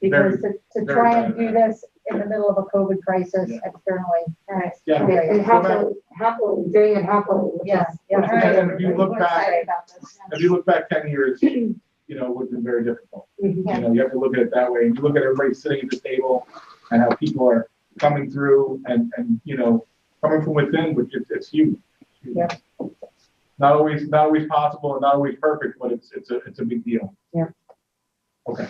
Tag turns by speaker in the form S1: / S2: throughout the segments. S1: Because to, to
S2: Very
S1: try and
S2: bad.
S1: do this in the middle of a COVID crisis
S2: Yeah.
S1: externally, that's
S2: Yeah.
S1: very-
S3: And happily, happily, doing it happily.
S1: yes, yeah.
S2: Well, and if you look
S1: We're
S2: back-
S1: excited about this.
S2: If you look back ten years, you know, it would have been very difficult.
S3: Mhm.
S2: You know, you have to look at it that way. You look at everybody sitting at the table and how people are coming through and, and, you know, coming from within, which is, it's huge.
S1: Yeah.
S2: Not always, not always possible and not always perfect, but it's, it's a, it's a big deal.
S3: Yeah.
S2: Okay,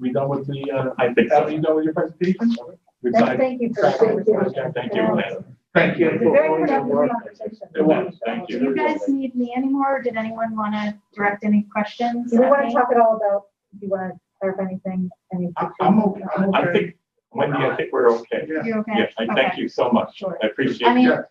S2: we done with the, uh,
S4: I think
S2: Al,
S4: so.
S2: you done with your presentation?
S4: Good
S1: Thank-
S4: side.
S1: Thank you for. the conversation.
S4: Thank you, Lynn.
S2: Thank
S1: It's a very productive conversation.
S4: It was, thank
S5: Do you guys need me anymore, or did anyone want to direct any questions?
S1: Do we
S5: at
S1: want
S5: me?
S1: to talk at all about, do you want to clarify anything? Any
S2: I- I'm okay. I'm
S4: I
S2: okay.
S4: think, Wendy, I think we're okay.
S2: Yeah.
S5: You okay?
S4: Yeah, I thank
S5: Okay.
S4: you so much.
S1: Sure.
S4: I
S5: I
S4: appreciate
S5: mean,
S4: it.
S2: Yeah.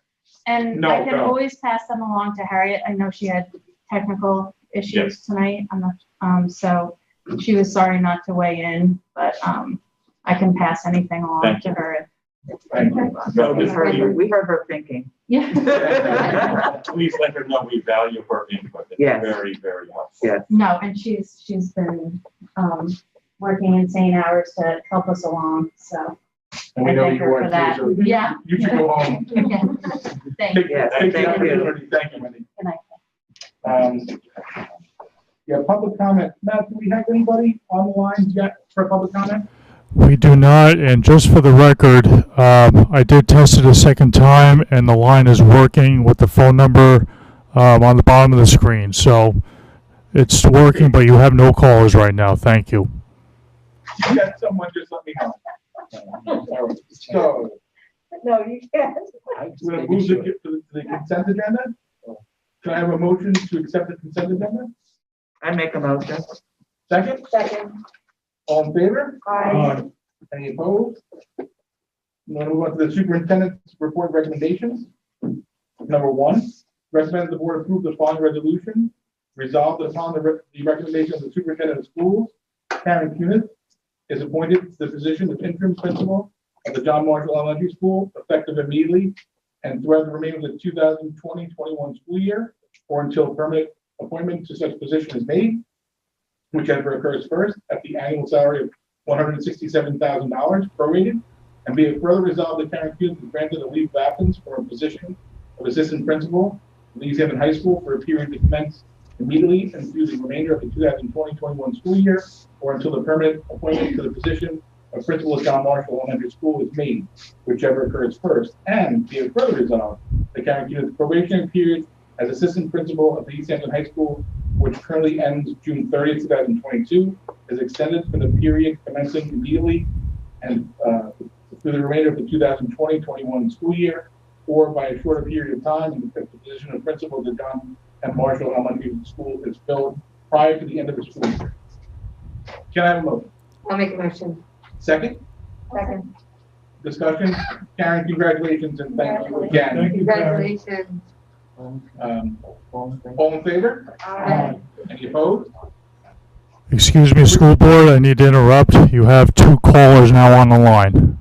S5: and
S2: No,
S5: I can
S2: no.
S5: always pass them along to Harriet. I know she had technical issues tonight. I'm not, um, so she was sorry not to weigh in, but, um, I can pass anything along
S4: Thank
S5: to her.
S2: Thank you.
S4: No, this
S6: heard her-
S4: is-
S6: we heard her thinking.
S5: Yeah.
S4: Please let her know we value her input. It's
S6: Yes.
S4: very, very helpful.
S6: Yes.
S5: No, and she's, she's been, um, working insane hours to help us along, so,
S2: And we know
S5: Thank
S2: you
S5: her for
S2: want to,
S5: that.
S2: so
S5: yeah.
S2: you should go home.
S5: Yeah. Thank you.
S2: Take-
S6: Yes,
S2: take the
S6: thank you.
S2: opportunity. Thank you, Wendy.
S5: Good night.
S2: Um, Yeah, public comment. Matt, do we have anybody online yet for public comment?
S7: We do not, and just for the record, um, I did test it a second time, and the line is working with the phone number um, on the bottom of the screen. So it's working, but you have no callers right now. Thank you.
S2: You got someone, just let me know. All right. So,
S1: No, you can't.
S2: we're gonna move the, to the consent agenda? Can I have a motion to accept the consent agenda?
S6: I make a motion.
S2: Second,
S1: Second,
S2: all in favor?
S1: I,
S2: Any opposed? Now move on to the superintendent's report recommendations. Number one, recommend the board approve the following resolution. Resolved that upon the re- the recommendation of the superintendent of schools, Karen Cuniff is appointed to the position of interim principal of the John Marshall Elementary School effective immediately and throughout the remainder of the 2020-21 school year or until permanent appointment to such position is made, whichever occurs first, at the annual salary of one hundred and sixty-seven thousand dollars prorated, and be it further resolved that Karen Hughes is granted a leave of absence for a position of assistant principal at East Haven High School for a period to commence immediately and through the remainder of the 2020-21 school year, or until the permanent appointment to the position of principal at John Marshall Elementary School is made, whichever occurs first, and be it further resolved that Karen Hughes' probationary period as assistant principal of the East Hampton High School, which currently ends June thirtieth, two thousand twenty-two, is extended for the period commencing immediately and uh, through the remainder of the 2020-21 school year, or by a shorter period of time, and if the position of principal of the John M. Marshall Elementary School is filled prior to the end of the school year. Can I have a motion?
S3: I'll make a motion.
S2: Second,
S1: second,
S2: discussion. Karen, congratulations and thank you again.
S3: Congratulations.
S2: Um, All in favor?
S1: I,
S2: Any opposed?
S7: Excuse me, school board, I need to interrupt. You have two callers now on the line.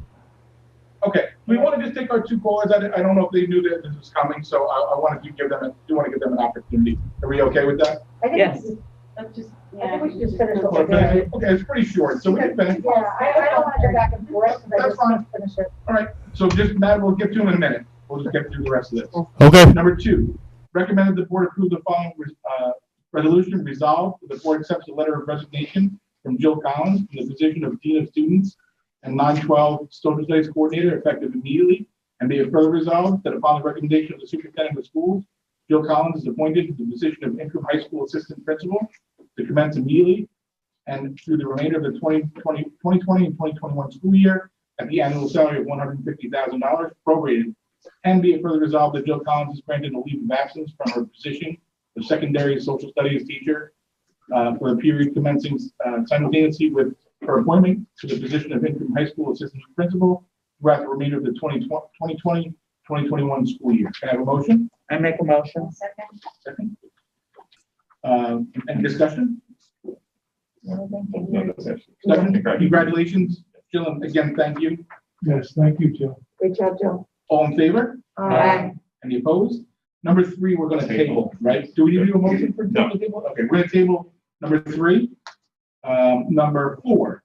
S2: Okay, we want to just take our two callers. I, I don't know if they knew that this was coming, so I, I wanted to give them, a- do want to give them an opportunity. Are we okay with that?
S1: I think,
S6: Yes.
S1: we should- I think we should just finish what we're
S2: Okay,
S1: doing.
S2: it's pretty short, so we can finish.
S1: Yeah, I, I don't want to go back and forth, but I
S2: That's
S1: just want to finish it.
S2: All right, so just, Matt, we'll get to in a minute. We'll just get through the rest of this.
S7: Okay.
S2: Number two, recommended the board approve the following, uh, resolution resolved. The board accepts a letter of resignation from Jill Collins in the position of Dean of Students and nine twelve Social Studies Coordinator effective immediately. And be it further resolved that upon the recommendation of the superintendent of schools, Jill Collins is appointed to the position of interim high school assistant principal to commence immediately and through the remainder of the 2020 2020 and twenty twenty-one school year at the annual salary of one hundred and fifty thousand dollars prorated and be it further resolved that Jill Collins is granted a leave of absence from her position of secondary social studies teacher uh, for a period commencing uh, simultaneously with her appointment to the position of interim high school assistant principal throughout the remainder of the 2020, 2020, 2021 school year. Can I have a motion?
S6: I make a motion.
S1: Second.
S2: Second. Um, Any discussion? Discussion? Congratulations, Jill, and again, thank you.
S8: Yes, thank you, Jill.
S3: Good job, Jill.
S2: All in favor? Uh,
S3: Aye.
S2: Any opposed? Number three, we're gonna table,
S4: Table.
S2: right? Do we need to do a motion for
S4: No.
S2: table? Okay, we're gonna table number three. Um, number four,